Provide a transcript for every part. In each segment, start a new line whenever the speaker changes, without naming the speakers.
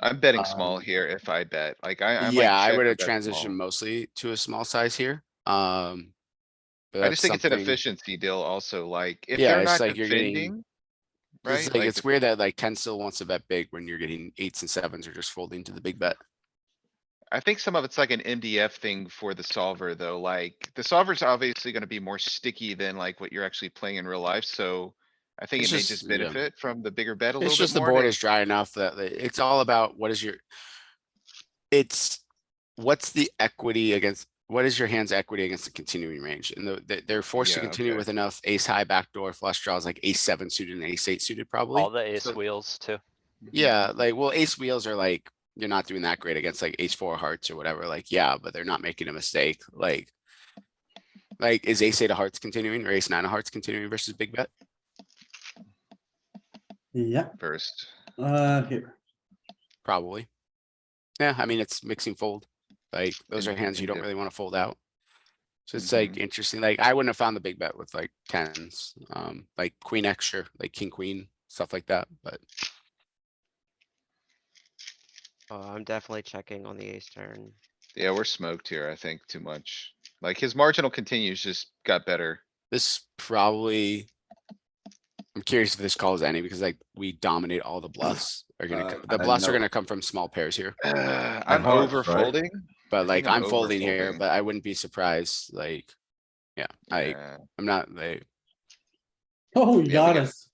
I'm betting
Um,
small here if I bet, like I. I might
Yeah, I
check
would
or
have
bet small.
transitioned mostly to a small size here, um. but
I
that's
just think it's an
something-
efficiency deal also, like if
Yeah,
they're
it's
not
like you're getting-
defending.
It's
Right?
like,
Like,
it's weird that like ten still wants to bet big when you're getting eights and sevens are just folding to the big bet.
I think some of it's like an MDF thing for the solver though, like the solver's obviously gonna be more sticky than like what you're actually playing in real life, so. I think
It's
it may
just-
just
yeah.
benefit from the bigger bet a little
It's
bit
just the
more.
board
and
is dry enough that like, it's all about what is your. It's, what's the equity against, what is your hand's equity against the continuing range? And the- they, they're forced to
Yeah,
continue
okay.
with enough ace high backdoor flush draws like ace seven suited and ace eight suited probably.
All the ace
So-
wheels too.
Yeah, like, well, ace wheels are like, you're not doing that great against like ace four hearts or whatever, like, yeah, but they're not making a mistake, like. Like, is ace eight of hearts continuing or ace nine of hearts continuing versus big bet?
Yeah,
First,
uh, here,
Probably. Yeah, I mean, it's mixing fold, like, those are
In-
hands you don't really wanna fold out. So it's like
Mhm.
interesting, like, I wouldn't have found the big bet with like tens, um, like queen extra, like king, queen, stuff like that, but.
Oh, I'm definitely checking on the ace turn.
yeah, we're smoked here, I think, too much. Like his marginal continues just got better.
This probably. I'm curious if this calls any because like we dominate all the bluffs are gonna,
Uh,
co-
I
the bluffs are
know.
gonna come from small pairs here,
Uh, I'm
hearts,
over
right?
folding.
but like
think I'm
I'm folding here,
overfolding.
but I wouldn't be surprised, like. Yeah, I,
Yeah.
I'm not like,
oh,
we
you got
got-
us,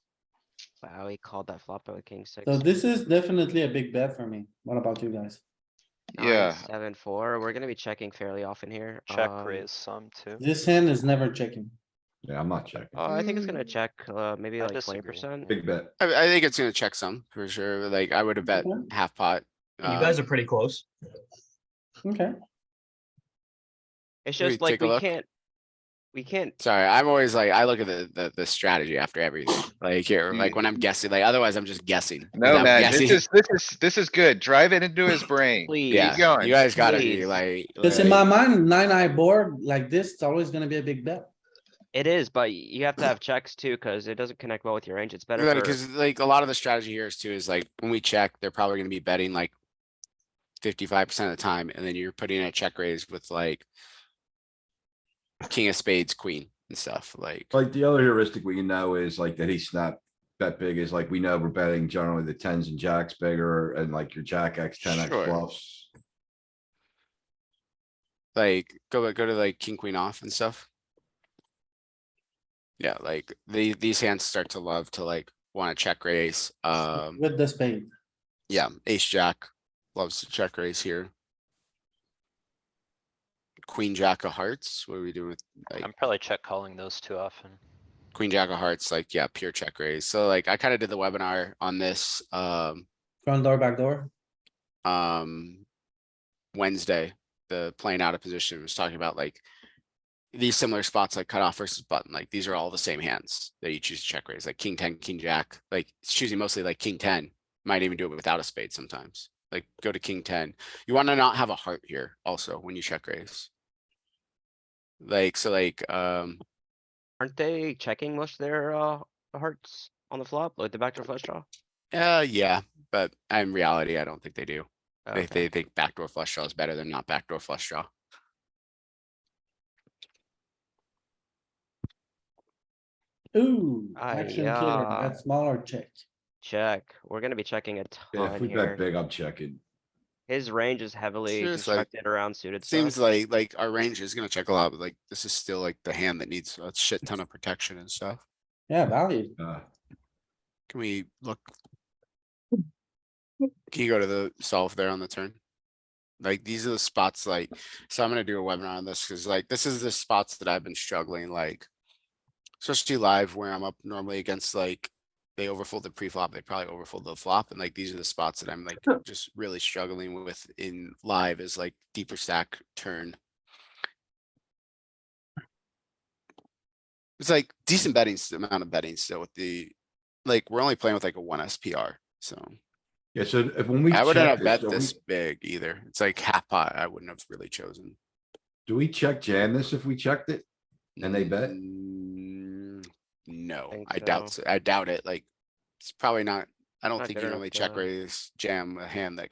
Wow, he called that flop out with king six.
so this is definitely a big bet for me, what about you guys?
nine,
Yeah.
Seven, four, we're gonna be checking fairly often here.
Check
um,
raise some too.
This hand is never checking,
Yeah, I'm not checking.
Oh, I think it's
Hmm.
gonna check, uh, maybe
I
like twenty
disagree.
percent.
Big bet.
I, I think it's gonna check some for sure, but, like I would have bet
Okay.
half pot.
You guys
um,
are pretty close.
okay,
It's
Maybe
just
take
like,
a
we
look.
can't. We can't,
Sorry, I'm always like, I look at the, the, the strategy after everything, like here, like when I'm guessing, like otherwise I'm just guessing. 'cause
Mm. No,
I'm
man, this
guessing.
is, this is, this is good. Drive it into his brain.
please.
Yeah,
going,
you guys gotta be
please.
like.
cause in
like-
my mind, nine eye board like this, it's always gonna be a big bet.
It is, but y- you have to have checks too, cuz it doesn't connect well with your range. It's better for,
Because like a lot of the strategy here is too is like when we check, they're probably gonna be betting like fifty-five percent of the time, and then you're putting in a check raise with like king of spades, queen and stuff like.
Like the other heuristic we know is like that he snap bet big is like, we know we're betting generally the tens and jacks bigger and like your jack X, ten X
Sure.
bluffs.
Like go go to like king queen off and stuff. Yeah, like the these hands start to love to like wanna check raise. Um,
With the spade,
yeah, ace jack loves to check raise here. Queen jack of hearts. What are we doing with like?
I'm probably check calling those too often.
Queen jack of hearts, like, yeah, pure check raise. So like, I kind of did the webinar on this, um,
front door, back door,
um, Wednesday, the playing out of position was talking about like these similar spots like cutoff versus button, like these are all the same hands that you choose to check raise, like king ten, king jack, like it's choosing mostly like king ten. Might even do it without a spade sometimes, like go to king ten. You want to not have a heart here also when you check raise. Like, so like, um,
aren't they checking most of their, uh, hearts on the flop, like the backdoor flush draw?
uh, yeah, but in reality, I don't think they do.
Oh,
They,
okay.
they think backdoor flush draw is better than not backdoor flush draw.
ooh,
Aye,
action killer,
yeah.
that smaller check.
Check, we're gonna be checking a
Yeah, if
ton
we bet
here.
big, I'm checking.
His range is heavily
Seems like-
constructed around suited
It
stuff.
seems like, like our range is gonna check a lot, but like this is still like the hand that needs a shit ton of protection and stuff.
Yeah, value,
Uh,
Can we look? Can you go to the solve there on the turn? Like, these are the spots like, so I'm gonna do a webinar on this, cause like, this is the spots that I've been struggling, like. Especially live where I'm up normally against like, they overfold the pre-flop, they probably overfold the flop, and like, these are the spots that I'm like, just really struggling with in live is like deeper stack turn. It's like decent betting, s- amount of betting still with the, like, we're only playing with like a one SPR, so.
Yeah, so if when we.
I wouldn't
check
have bet
do we-
this big either. It's like half pot. I wouldn't have really chosen.
Do we check jam this if we checked it? And they bet?
Mm, No,
Think
I doubt,
so.
so- I doubt it. Like, it's probably not, I don't
Not
think
good
you
enough
only check
to-
raise jam a hand that